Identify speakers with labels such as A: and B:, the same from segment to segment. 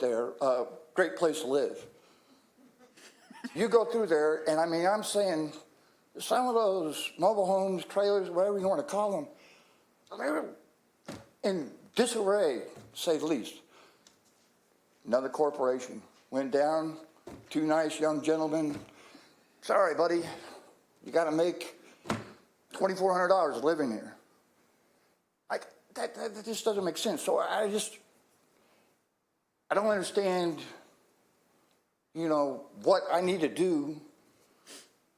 A: there, uh, great place to live. You go through there, and I mean, I'm saying, some of those mobile homes, trailers, whatever you want to call them, they're in disarray, say the least. Another corporation went down, two nice young gentlemen, sorry, buddy, you got to make $2,400 living here. Like, that, that, that just doesn't make sense. So I just, I don't understand, you know, what I need to do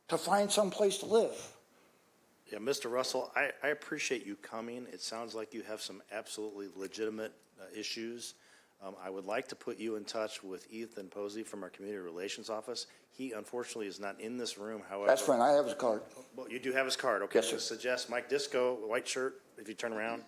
A: to find some place to live.
B: Yeah, Mr. Russell, I, I appreciate you coming. It sounds like you have some absolutely legitimate uh, issues. Um, I would like to put you in touch with Ethan Posey from our Community Relations Office. He unfortunately is not in this room, however.
A: That's fine. I have his card.
B: Well, you do have his card, okay?
A: Yes, sir.
B: Just Suggest Mike Disco, white shirt, if you turn around.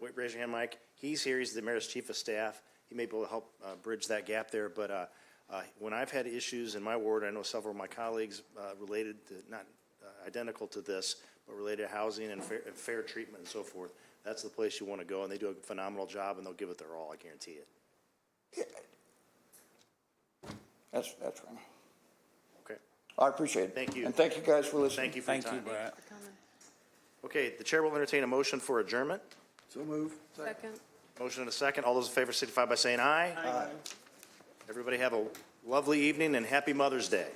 B: Wait, Raise your hand, Mike. He's here, he's the mayor's chief of staff. He may be able to help uh, bridge that gap there, but uh, uh, when I've had issues in my ward, I know several of my colleagues uh, related to, not uh, identical to this, but related to housing and fair, and fair treatment and so forth. That's the place you want to go, and they do a phenomenal job, and they'll give it their all, I guarantee it.
A: That's, that's fine.
B: Okay?
A: I appreciate it.
B: Thank you.
A: And thank you guys for listening.
B: Thank you for your time.
C: Brad.
B: Okay, the chair will entertain a motion for adjournment.
D: Second.
B: Motion and a second. All those in favor signify by saying aye. Aye. Everybody have a lovely evening and happy Mother's Day.